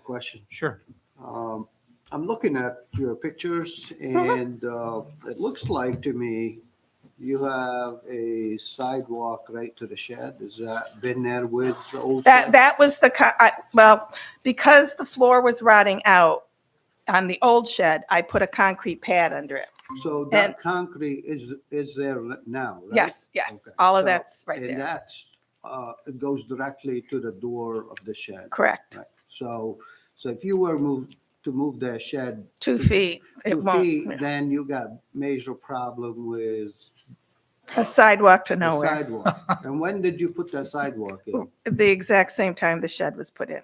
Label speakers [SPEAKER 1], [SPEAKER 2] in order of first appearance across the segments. [SPEAKER 1] question.
[SPEAKER 2] Sure.
[SPEAKER 1] Um, I'm looking at your pictures
[SPEAKER 3] Uh-huh.
[SPEAKER 1] and uh, it looks like to me you have a sidewalk right to the shed. Has that been there with the old?
[SPEAKER 3] That
[SPEAKER 1] shed?
[SPEAKER 3] that was the co- I, well, because the floor was rotting out on the old shed, I put a concrete pad under it.
[SPEAKER 1] So
[SPEAKER 3] and-
[SPEAKER 1] that concrete is, is there now, right?
[SPEAKER 3] Yes, yes,
[SPEAKER 1] Okay.
[SPEAKER 3] all of
[SPEAKER 1] So-
[SPEAKER 3] that's right
[SPEAKER 1] And
[SPEAKER 3] there.
[SPEAKER 1] that's, uh, it goes directly to the door of the shed.
[SPEAKER 3] Correct.
[SPEAKER 1] Right. So, so if you were moved, to move the shed
[SPEAKER 3] Two feet. It
[SPEAKER 1] two
[SPEAKER 3] won't.
[SPEAKER 1] feet, then you got major problem with
[SPEAKER 3] A sidewalk to
[SPEAKER 1] the
[SPEAKER 3] nowhere.
[SPEAKER 1] sidewalk. And when did you put that sidewalk in?
[SPEAKER 3] The exact same time the shed was put in.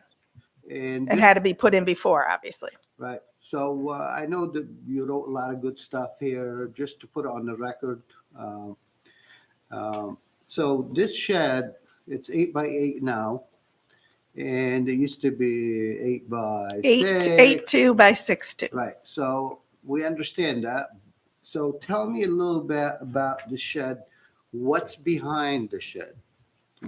[SPEAKER 1] And,
[SPEAKER 3] It
[SPEAKER 1] thi-
[SPEAKER 3] had to be put in before, obviously.
[SPEAKER 1] right, so uh, I know that you wrote a lot of good stuff here, just to put it on the record. um, um, So this shed, it's eight by eight now, and it used to be eight by
[SPEAKER 3] Eight,
[SPEAKER 1] six.
[SPEAKER 3] eight two by six two.
[SPEAKER 1] Right, so we understand that. So tell me a little bit about the shed. What's behind the shed?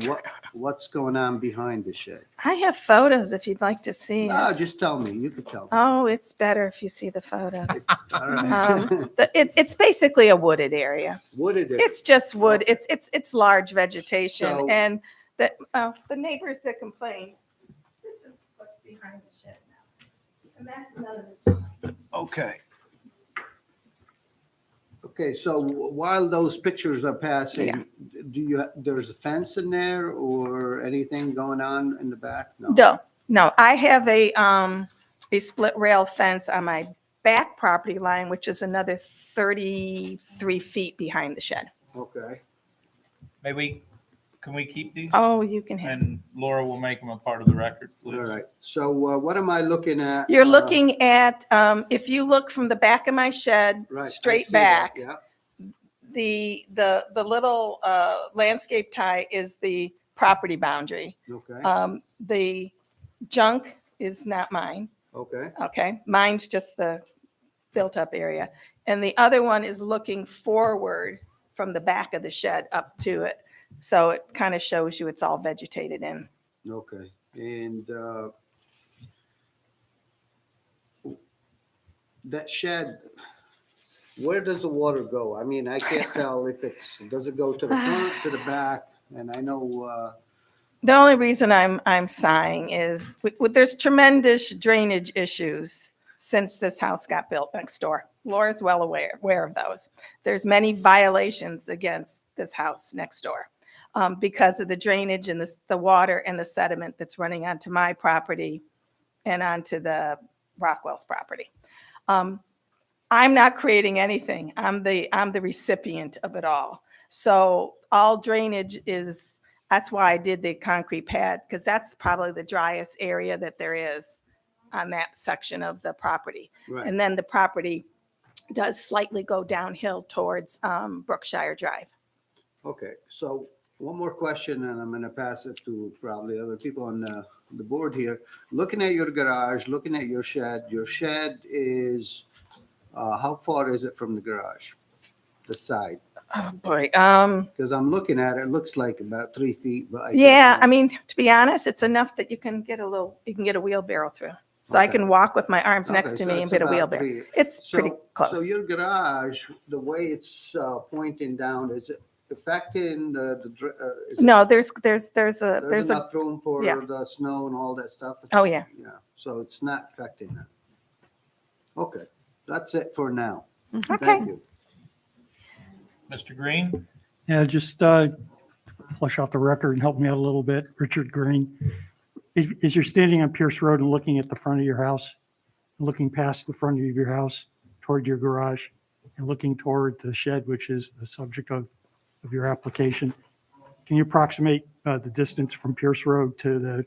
[SPEAKER 1] What, what's going on behind the shed?
[SPEAKER 3] I have photos if you'd like to see. it.
[SPEAKER 1] No, just tell me, you could tell. me.
[SPEAKER 3] Oh, it's better if you see the photos.
[SPEAKER 1] All right.
[SPEAKER 3] Um, the- it, it's basically a wooded area.
[SPEAKER 1] What it is.
[SPEAKER 3] It's just wood. It's, it's, it's large
[SPEAKER 1] So-
[SPEAKER 3] vegetation and the, uh, the neighbors that complain. This is what's behind the shed now. And that's none of it.
[SPEAKER 1] Okay. Okay, so while those pictures are passing, do you, there's a fence in there or anything going on in the back?
[SPEAKER 3] No, no, I have a, um, a split rail fence on my back property line, which is another thirty-three feet behind the shed.
[SPEAKER 1] Okay,
[SPEAKER 2] May we, can we keep these?
[SPEAKER 3] Oh, you can have,
[SPEAKER 2] And Laura will make them a part of the record,
[SPEAKER 1] all
[SPEAKER 2] please.
[SPEAKER 1] right. So uh, what am I looking at?
[SPEAKER 3] you're
[SPEAKER 1] Uh,
[SPEAKER 3] looking at, um, if you look from the back of my shed,
[SPEAKER 1] Uh, right, I
[SPEAKER 3] straight
[SPEAKER 1] see that,
[SPEAKER 3] back,
[SPEAKER 1] Yeah.
[SPEAKER 3] the, the, the little, uh, landscape tie is the property boundary.
[SPEAKER 1] Okay,
[SPEAKER 3] Um, the junk is not mine,
[SPEAKER 1] okay,
[SPEAKER 3] okay? Mine's just the built-up area. And the other one is looking forward from the back of the shed up to it. So it kind of shows you it's all vegetated in.
[SPEAKER 1] okay. And uh, that shed, where does the water go? I mean, I can't tell if it's, does it go to the front, to the back? And I know, uh,
[SPEAKER 3] The only reason I'm, I'm sighing is, w- w- there's tremendous drainage issues since this house got built next door. Laura's well aware, aware of those. There's many violations against this house next door um, because of the drainage and the, the water and the sediment that's running onto my property and onto the Rockwell's property. Um, I'm not creating anything. I'm the, I'm the recipient of it all. So all drainage is that's why I did the concrete pad, because that's probably the driest area that there is on that section of the property.
[SPEAKER 1] right,
[SPEAKER 3] And then the property does slightly go downhill towards um, Brookshire Drive.
[SPEAKER 1] okay. So one more question and I'm going to pass it to probably other people on the, the board here. Looking at your garage, looking at your shed, your shed is, uh, how far is it from the garage? The side?
[SPEAKER 3] Oh, boy. Um,
[SPEAKER 1] Because I'm looking at it, it looks like about three feet, but. I can't
[SPEAKER 3] yeah, I
[SPEAKER 1] tell.
[SPEAKER 3] mean, to be honest, it's enough that you can get a little, you can get a wheelbarrow through. So I
[SPEAKER 1] Okay.
[SPEAKER 3] can walk with my arms next
[SPEAKER 1] Okay,
[SPEAKER 3] to
[SPEAKER 1] so
[SPEAKER 3] me and
[SPEAKER 1] it's
[SPEAKER 3] get a
[SPEAKER 1] about
[SPEAKER 3] wheelbarrow.
[SPEAKER 1] three.
[SPEAKER 3] It's pretty
[SPEAKER 1] So- So
[SPEAKER 3] close.
[SPEAKER 1] your garage, the way it's uh, pointing down, is it affecting the, the dr- uh, is it-
[SPEAKER 3] No, there's, there's, there's a,
[SPEAKER 1] There's
[SPEAKER 3] there's a,
[SPEAKER 1] enough room for
[SPEAKER 3] yeah.
[SPEAKER 1] the snow and all that stuff?
[SPEAKER 3] oh, yeah.
[SPEAKER 1] Yeah, so it's not affecting that. Okay, that's it for now.
[SPEAKER 3] Okay.
[SPEAKER 1] Thank you.
[SPEAKER 2] Mr. Green,
[SPEAKER 4] Yeah, just uh, flush out the record and help me out a little bit. Richard Green. Is is you're standing on Pierce Road and looking at the front of your house, looking past the front of your house toward your garage and looking toward the shed, which is the subject of, of your application, can you approximate uh, the distance from Pierce Road to the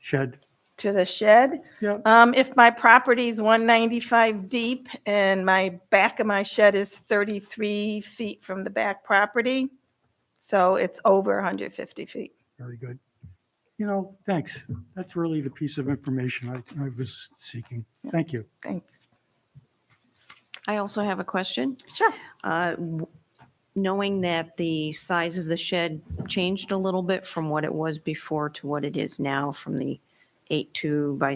[SPEAKER 4] shed?
[SPEAKER 3] to the shed.
[SPEAKER 4] Yep.
[SPEAKER 3] Um, if my property's one ninety-five deep and my back of my shed is thirty-three feet from the back property, so it's over hundred fifty feet.
[SPEAKER 4] Very good. You know, thanks. That's really the piece of information I, I was seeking. Thank you.
[SPEAKER 3] Thanks.
[SPEAKER 5] I also have a question.
[SPEAKER 3] Sure.
[SPEAKER 5] Uh, w- Knowing that the size of the shed changed a little bit from what it was before to what it is now, from the eight-two by